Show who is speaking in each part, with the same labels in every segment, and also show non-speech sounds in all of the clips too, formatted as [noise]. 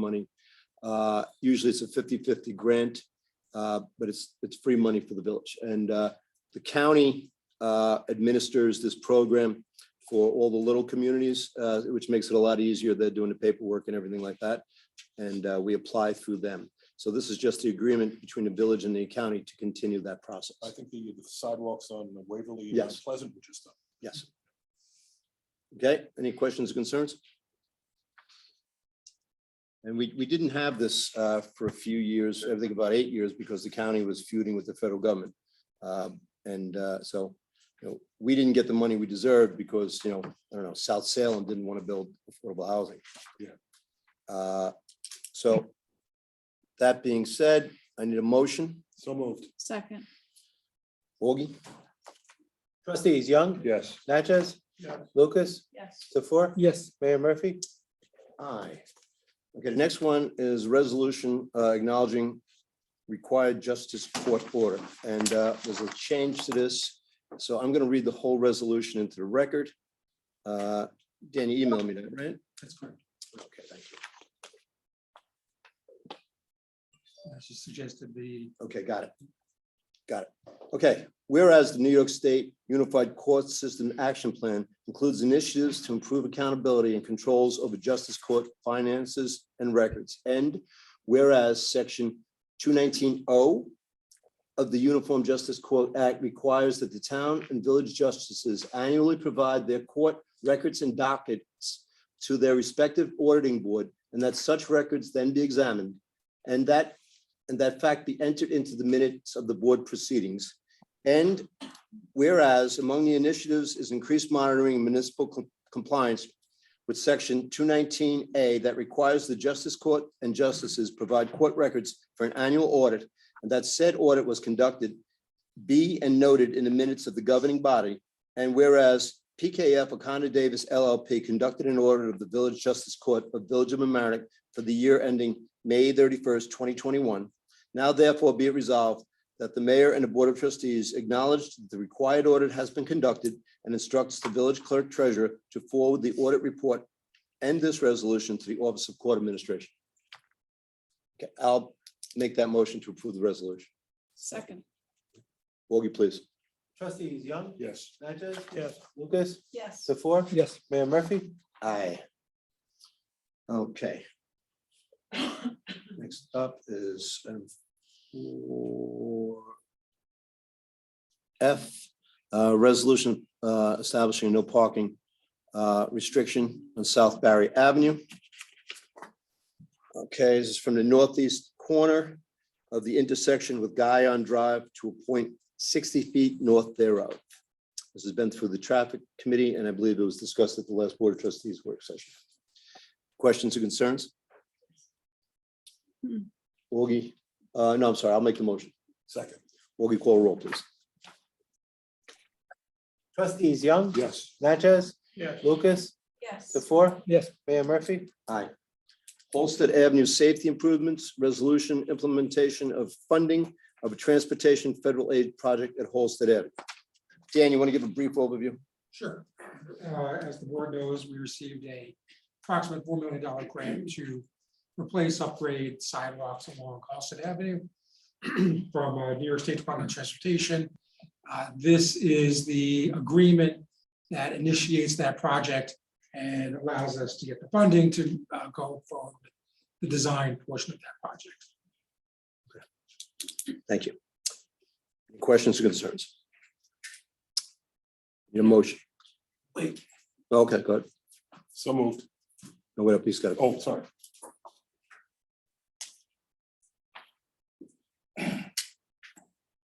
Speaker 1: money. Uh, Usually it's a 50-50 grant, uh, but it's, it's free money for the village. And uh, the county uh, administers this program for all the little communities, uh, which makes it a lot easier. They're doing the paperwork and everything like that. And uh, we apply through them. So this is just the agreement between the village and the county to continue that process.
Speaker 2: I think the the sidewalks on Waverly and
Speaker 1: Yes.
Speaker 2: Pleasant were just done.
Speaker 1: Yes. Okay, any questions, or concerns? And we, we didn't have this uh, for a few years, I think about eight years, because the county was feuding with the federal government. Um, And uh, so, you know, we didn't get the money we deserved because, you know, I don't know, South Salem didn't want to build affordable housing.
Speaker 2: Yeah.
Speaker 1: Yeah. So that being said, I need a motion.
Speaker 2: So moved.
Speaker 3: Second,
Speaker 1: Augie?
Speaker 4: Trustees Young,
Speaker 2: Yes.
Speaker 4: Natchez?
Speaker 2: Yeah.
Speaker 4: Lucas,
Speaker 3: yes.
Speaker 4: Tefor?
Speaker 2: Yes.
Speaker 4: Mayor Murphy?
Speaker 1: Aye. Okay, the next one is resolution uh, acknowledging required justice court order. And uh, there's a change to this. So I'm going to read the whole resolution into the record. Uh, Dan, you emailed me that, right?
Speaker 5: That's correct.
Speaker 1: Okay, thank you.
Speaker 5: As you suggested, the
Speaker 1: Okay, got it. Got it. Okay, whereas the New York State Unified Court System Action Plan includes initiatives to improve accountability and controls over justice court finances and records. And whereas section two nineteen O of the Uniform Justice Court Act requires that the town and village justices annually provide their court records and dockets to their respective auditing board, and that such records then be examined. And that and that fact be entered into the minutes of the board proceedings. And whereas among the initiatives is increased monitoring and municipal com- compliance with section two nineteen A that requires the justice court and justices provide court records for an annual audit. And that said audit was conducted, be and noted in the minutes of the governing body. And whereas PKF O'Connor Davis LLP conducted an audit of the village justice court of Village of Mamaroneck for the year ending May thirty-first, twenty twenty-one. Now therefore be it resolved that the mayor and the board of trustees acknowledge that the required audit has been conducted and instructs the village clerk treasurer to forward the audit report and this resolution to the Office of Court Administration. Okay, I'll make that motion to approve the resolution.
Speaker 3: Second,
Speaker 1: Woggy, please.
Speaker 4: Trustees Young,
Speaker 2: Yes.
Speaker 4: Natchez? Yes. Lucas,
Speaker 3: yes.
Speaker 4: Tefor?
Speaker 5: Yes.
Speaker 4: Mayor Murphy?
Speaker 1: Aye. Okay. Next up is um, four F, uh, resolution uh, establishing no parking uh, restriction on South Barry Avenue. Okay, this is from the northeast corner of the intersection with Guy on Drive to a point sixty feet north thereof. This has been through the traffic committee, and I believe it was discussed at the last Board of Trustees work session. Questions or concerns?
Speaker 3: Hmm.
Speaker 1: Augie, uh, no, I'm sorry, I'll make the motion.
Speaker 2: Second.
Speaker 1: Augie, call roll, please.
Speaker 4: Trustees Young,
Speaker 2: Yes.
Speaker 4: Natchez?
Speaker 5: Yes.
Speaker 4: Lucas,
Speaker 3: Yes.
Speaker 4: Tefor?
Speaker 5: Yes.
Speaker 4: Mayor Murphy?
Speaker 1: Holstead Avenue Safety Improvements Resolution Implementation of Funding of a Transportation Federal Aid Project at Holstead Avenue. Dan, you want to give a brief overview?
Speaker 5: Sure. Uh, As the board knows, we received a approximate four million dollar grant to replace upgrade sidewalks along Austin Avenue [clears throat] from uh, New York State Department of Transportation. Uh, This is the agreement that initiates that project and allows us to get the funding to uh, go for the design portion of that project.
Speaker 1: Thank you. Questions or concerns? Your motion?
Speaker 5: Wait.
Speaker 1: Okay, go ahead.
Speaker 2: So moved.
Speaker 1: No, wait, please, got it.
Speaker 2: Oh, sorry.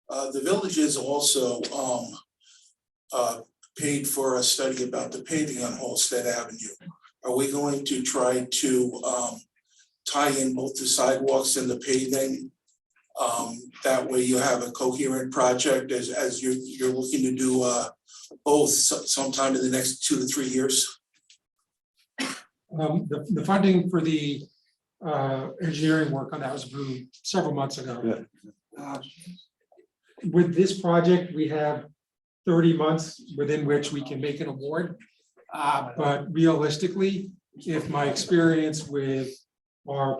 Speaker 6: Uh, the village is also, um, uh, paid for a study about the paving on Holstead Avenue. Are we going to try to, um, tie in both the sidewalks and the paving? Um, that way you have a coherent project as, as you're, you're looking to do, uh, both so- sometime in the next two to three years?
Speaker 5: Um, the, the funding for the, uh, engineering work on that was approved several months ago. Uh, With this project, we have thirty months within which we can make an award. Uh, but realistically, if my experience with our